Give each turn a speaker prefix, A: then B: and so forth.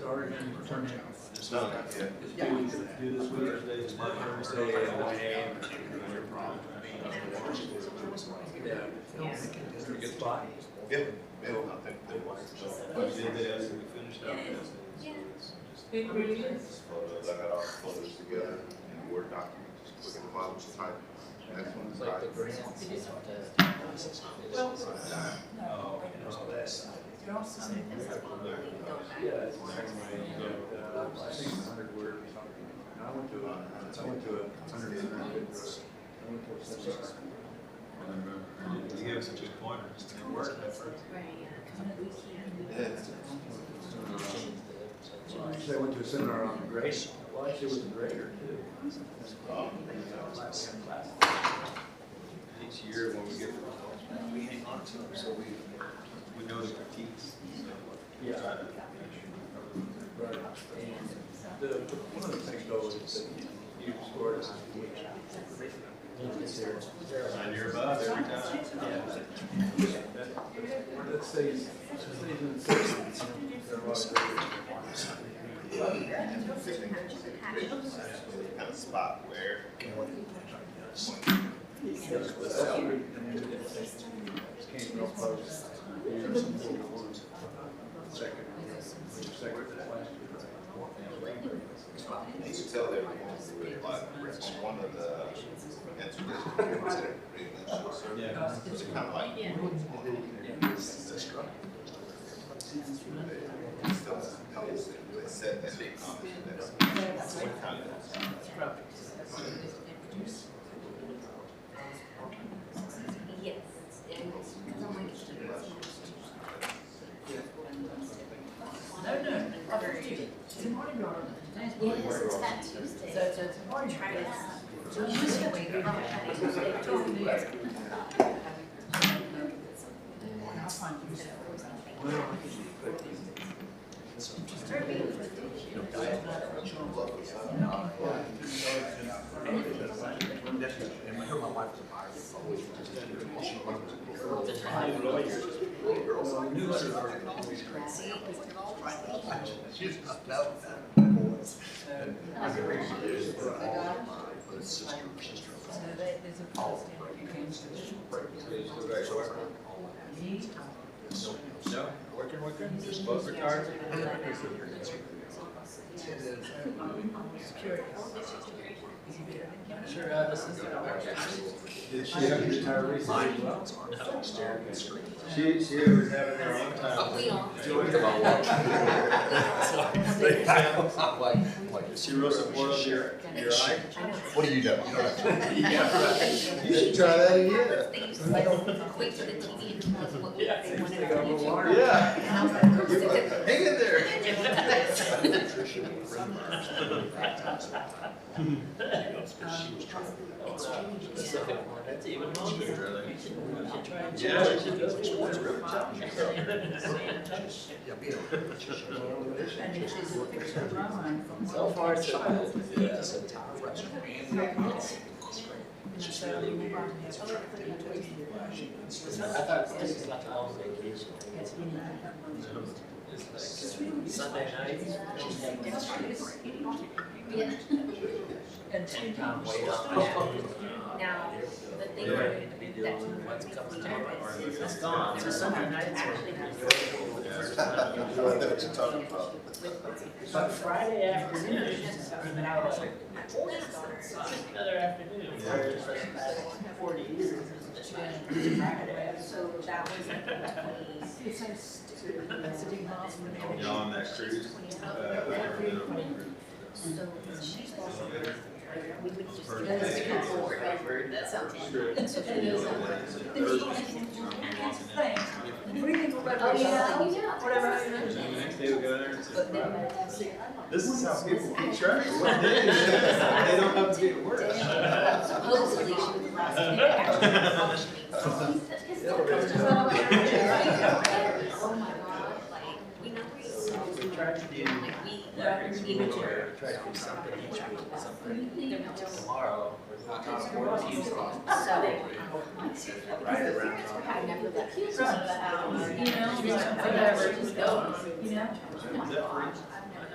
A: already determined.
B: It's done, yeah.
A: Yeah.
C: Do this Wednesday, it's my Thursday.
A: Yeah.
C: Pretty good spot.
B: Yeah, Bill, I think they want to
C: We did this and we finished up Wednesday. so
D: It really is.
B: photos, I got all the photos together in Word document, just click on the bottom to type. That's when it's
E: Like the
B: typed.
E: grants.
D: Well,
C: Oh, and all that.
D: you're also saying this is one thing, don't matter.
C: Yeah, it's the same way, you know, uh, I think it's a hundred word. And I went to a, I went to a hundred and fifty. I went to a seminar. And You gave us such a pointer, just didn't work at first.
D: Right, yeah, 'cause we can't do that.
C: Actually, I went to a seminar on grace. Well, actually, it was a grader too. Each year when we get the results, back, we hang on to them, so we, we know the critiques. Yeah. Right. The, one of the things though is that you scored us. And you're above every time. Let's say, let's say it's in the sixties, there are a lot of graders.
B: Kind of spot where.
C: Came real close. Second. Second last
B: You can tell they're going through it, like, on one of the, that's what they're reading that short
C: year.
B: circuit.
C: Yeah.
B: So it's kind of like. That's right. They still have notes that they said that they commented that. That's what kind of-
D: Yes, and, 'cause I'm like, it's
F: No, no, after Tuesday. Tomorrow,
D: Yes, it's that Tuesday.
F: so, so tomorrow.
D: Try it out.
F: So you just have to.
D: They told me.
F: I'll find you. So that there's a policy. Me?
C: No, working, working, just both retired.
F: I'm just curious. Is he better than him?
E: Sure, uh, this is.
C: Did she ever retire recently as well? She, she was having her own
D: Oh, we
C: time.
D: all.
C: She wrote some more on your, your eye.
B: What do you know? You don't have to-
C: You should try that again.
D: They used to like, wait for the TV and tell us what we- they wanted our future.
C: Yeah.
D: And I was like, "Oh,
C: You're like,
D: shit."
C: Hang in there.
E: That's even longer. You should, you should try and.
C: Yeah.
E: You should go.
F: And it's just a picture of my mind from.
E: So far, so good. Yeah.
F: Just really. It's
E: It's not- I thought this was like a long vacation.
F: been, I have one.
E: It's like uh, Sunday night. Tuesday night.
D: Yeah.
F: And two
E: I'm
F: times.
E: way on.
D: Now, the thing
C: Yeah.
D: that
E: What's coming
D: that
E: tomorrow?
D: is,
E: It's gone. So Sunday nights were.
D: actually not.
B: I know what you're talking about.
E: But Friday afternoon, it's an hour. Another afternoon, where it's like past forty years. it's like Friday.
D: So that was like the
F: It's so stupid. That's a big miles from the.
C: Y'all on that cruise? Uh, I never did on that cruise.
D: So she's also, we would just. That's
F: That's
D: different
F: good
D: forward.
F: That's something.
D: That's what it is.
F: Oh, yeah.
D: yeah.
C: And then the next day we go there and say,
D: But then
C: "Wow,
D: that's it.
C: this is how people keep track of what they do. They don't have to be at work.
D: Supposedly she was the last to actually functioning. Oh my god, like, we know where you
E: We tried to do.
D: Like, we.
E: Every week, or try to do something each week, something tomorrow. we're not on board Tuesday.
D: um,
E: Right around.
D: I never left.
F: You know, just whatever, just go, you know?
C: Is that free?